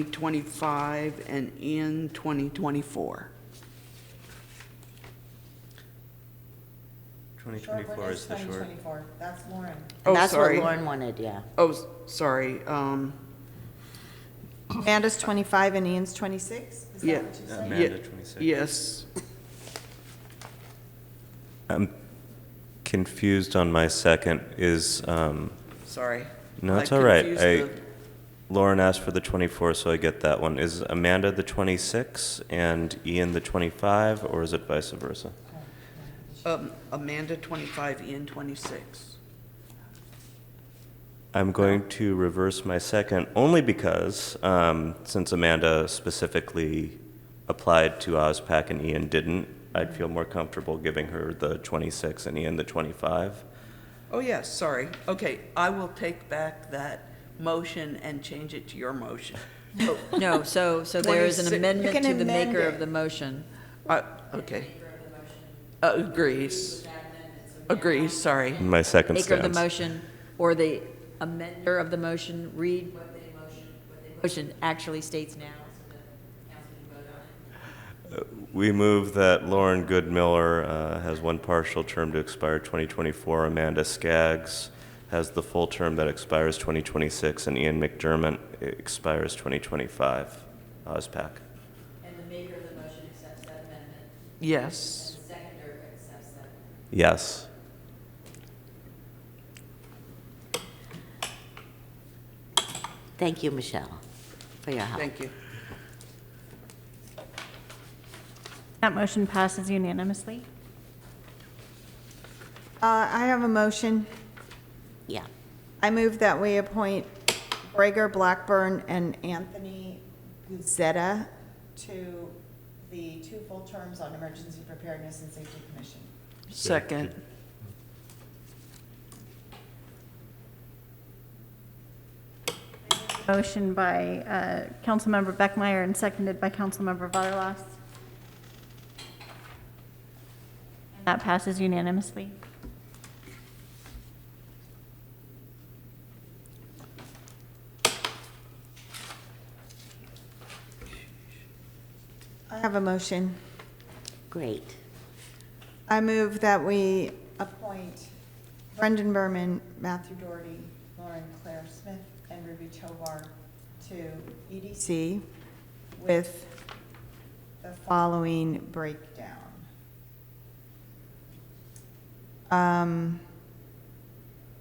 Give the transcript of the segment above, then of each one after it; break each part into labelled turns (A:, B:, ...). A: 2025 and in 2024.
B: 2024 is the short.
C: Twenty twenty-four, that's Lauren.
A: Oh,
D: And that's what
A: sorry.
D: Lauren wanted, yeah.
A: Oh, s- sorry, um,
C: Amanda's twenty-five and Ian's twenty-six? Is
A: Yeah.
C: that what you
B: Uh,
C: said?
A: yeah,
B: Amanda, 26.
A: Yes,
B: I'm confused on my second. Is, um,
A: sorry.
B: no,
A: I
B: it's all right.
A: confused
B: I,
A: the-
B: Lauren asked for the 24, so I get that one. Is Amanda the 26 and Ian the 25, or is it vice versa?
A: um, Amanda 25, Ian 26.
B: I'm going to reverse my second only because um, since Amanda specifically applied to OSPAC and Ian didn't, I'd feel more comfortable giving her the 26 and Ian the 25.
A: Oh, yes, sorry. Okay, I will take back that motion and change it to your motion. Oh,
E: No, so, so there is an
A: 26
C: You
E: amendment
C: can
E: to the
C: amend
E: maker
C: it.
E: of the motion.
A: I- Okay. Uh, Agrees. Agrees, sorry.
B: My second
E: Maker of the
B: stands.
E: motion, or the amender of the motion, read what the motion, what the motion actually states now, so that council can vote on it.
B: We move that Lauren Goodmiller uh, has one partial term to expire 2024. Amanda Skaggs has the full term that expires 2026, and Ian McDermott expires 2025. OSPAC.
A: Yes.
B: Yes.
D: Thank you, Michelle, for your help.
A: Thank you.
F: That motion passes unanimously.
C: Uh, I have a motion.
D: Yeah.
C: I move that we appoint Brager Blackburn and Anthony Guzetta to the two full terms on Emergency Preparedness and Safety Commission.
A: Second.
F: Motion by uh, Councilmember Beckmeyer and seconded by Councilmember Butterlos. That passes unanimously.
C: I have a motion.
D: Great.
C: I move that we appoint Brendan Berman, Matthew Doherty, Lauren Claire Smith, and Ruby Tovar to EDC with the following breakdown. Um,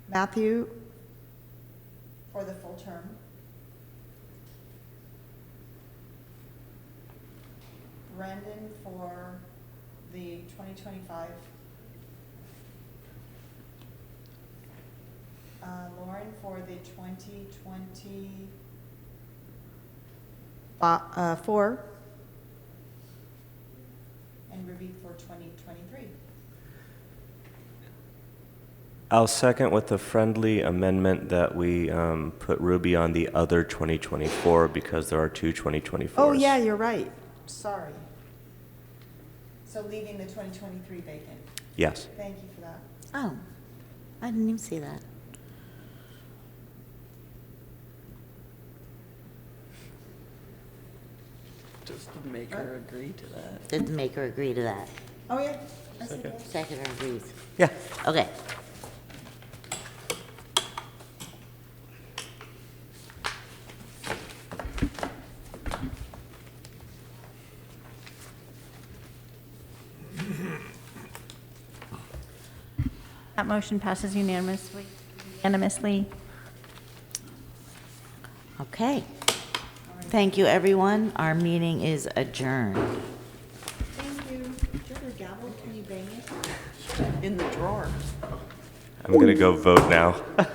C: Matthew? For the full term. Brendan for the 2025. Uh, Lauren for the 2020, bo- uh, four. And Ruby for 2023.
B: I'll second with the friendly amendment that we um, put Ruby on the other 2024 because there are two 2024s.
C: Oh, yeah, you're right. Sorry. So leaving the 2023 vacant.
B: Yes.
C: Thank you for that.
D: Oh, I didn't even see that.
A: Does the maker agree to that?
D: Didn't make her agree to that.
C: Oh, yeah. I see that.
D: Second or agrees.
B: Yeah.
D: Okay.
F: That motion passes unanimously. Unanimously.
D: Okay. Thank you, everyone. Our meeting is adjourned.
C: Thank you. Do you have your gavel? Can you bang it?
A: In the drawer.
B: I'm going to go vote now.